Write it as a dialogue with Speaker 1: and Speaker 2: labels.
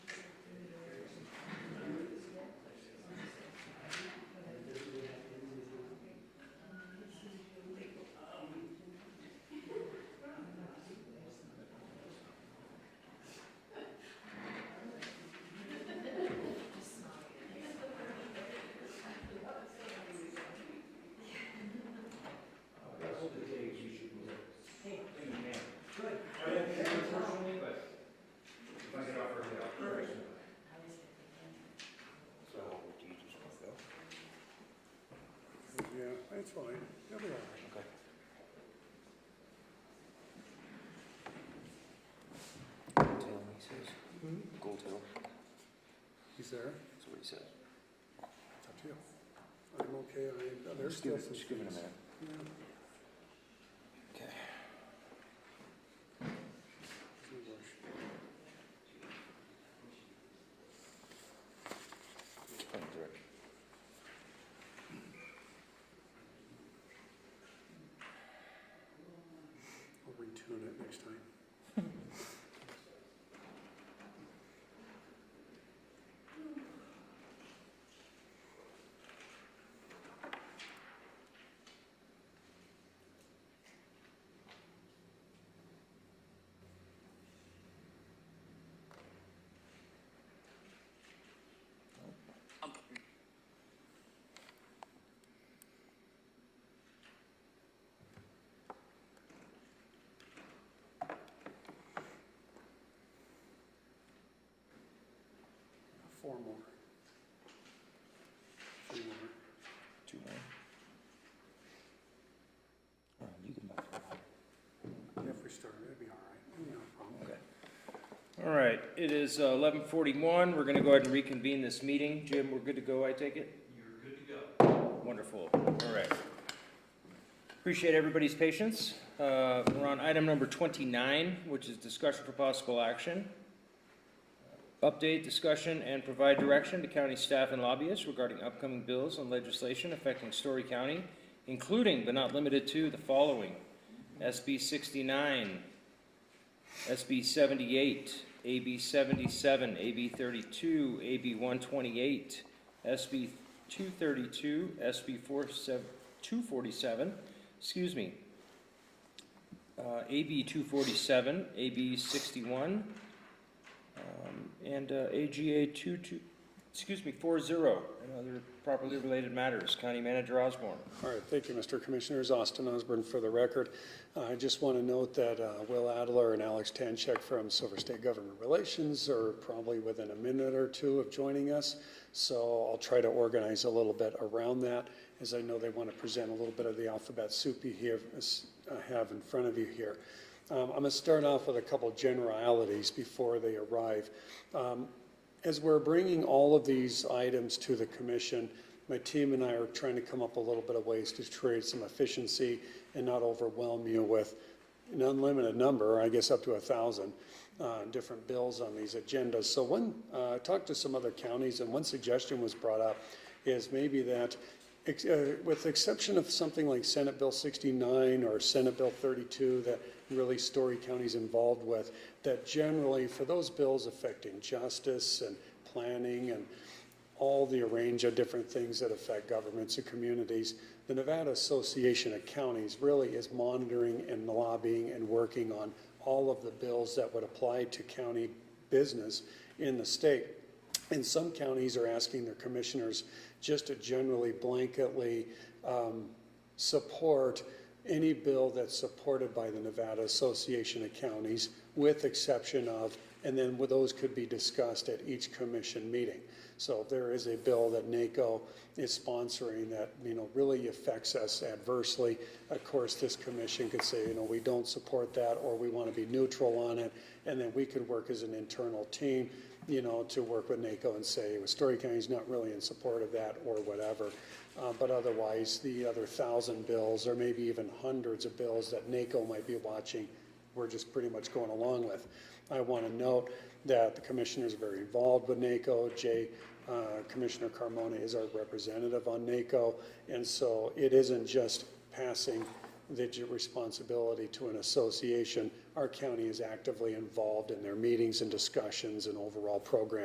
Speaker 1: It's fine, they'll be all right.
Speaker 2: Okay. Gold tail, he says. Gold tail,
Speaker 1: Mm-hmm. He's there,
Speaker 2: that's what he says.
Speaker 1: it's up to you. I'm okay, I, there's
Speaker 2: Just give
Speaker 1: still
Speaker 2: it,
Speaker 1: some.
Speaker 2: just give it a
Speaker 1: things.
Speaker 2: minute.
Speaker 1: Yeah,
Speaker 2: Okay.
Speaker 1: no rush.
Speaker 2: Thank you, Rick.
Speaker 1: I'll retune it next time. Four more. Three more.
Speaker 2: Two more. All right, you can back it up.
Speaker 1: If we start, it'd be all right, no problem.
Speaker 2: Okay.
Speaker 3: All right, it is uh, 11:41. We're going to go ahead and reconvene this meeting. Jim, we're good to go, I take it? You're good to go. Wonderful. All right. Appreciate everybody's patience. Uh, We're on item number 29, which is discussion for possible action. Update, discussion, and provide direction to county staff and lobbyists regarding upcoming bills and legislation affecting Story County, including but not limited to the following: SB 69, SB 78, AB 77, AB 32, AB 128, SB 232, SB 47 247, excuse me, uh, AB 247, AB 61, um, and uh, AGA 22, excuse me, 40, and other properly related matters. County Manager Osborne.
Speaker 1: All right, thank you, Mr. Commissioners. Austin Osborne for the record. Uh, I just want to note that uh, Will Adler and Alex Tanchek from Silver State Government Relations are probably within a minute or two of joining us, so I'll try to organize a little bit around that, as I know they want to present a little bit of the alphabet soup you have, uh, have in front of you here. Um, I'm going to start off with a couple generalities before they arrive. Um, as we're bringing all of these items to the commission, my team and I are trying to come up a little bit of ways to create some efficiency and not overwhelm you with an unlimited number, I guess up to a thousand, uh, different bills on these agendas. So one, uh, I talked to some other counties and one suggestion was brought up is maybe that ex- uh, with the exception of something like Senate Bill 69 or Senate Bill 32 that really Story County's involved with, that generally for those bills affecting justice and planning and all the range of different things that affect governments and communities, the Nevada Association of Counties really is monitoring and lobbying and working on all of the bills that would apply to county business in the state. And some counties are asking their commissioners just to generally blanketly um, support any bill that's supported by the Nevada Association of Counties, with exception of, and then with- those could be discussed at each commission meeting. So if there is a bill that NACO is sponsoring that, you know, really affects us adversely, of course, this commission could say, you know, we don't support that, or we want to be neutral on it, and then we could work as an internal team you know, to work with NACO and say, well, Story County's not really in support of that or whatever. Uh, but otherwise, the other thousand bills or maybe even hundreds of bills that NACO might be watching, we're just pretty much going along with. I want to note that the commissioners are very involved with NACO. Jay, uh, Commissioner Carmona is our representative on NACO. And so it isn't just passing the j- responsibility to an association. Our county is actively involved in their meetings and discussions and overall program.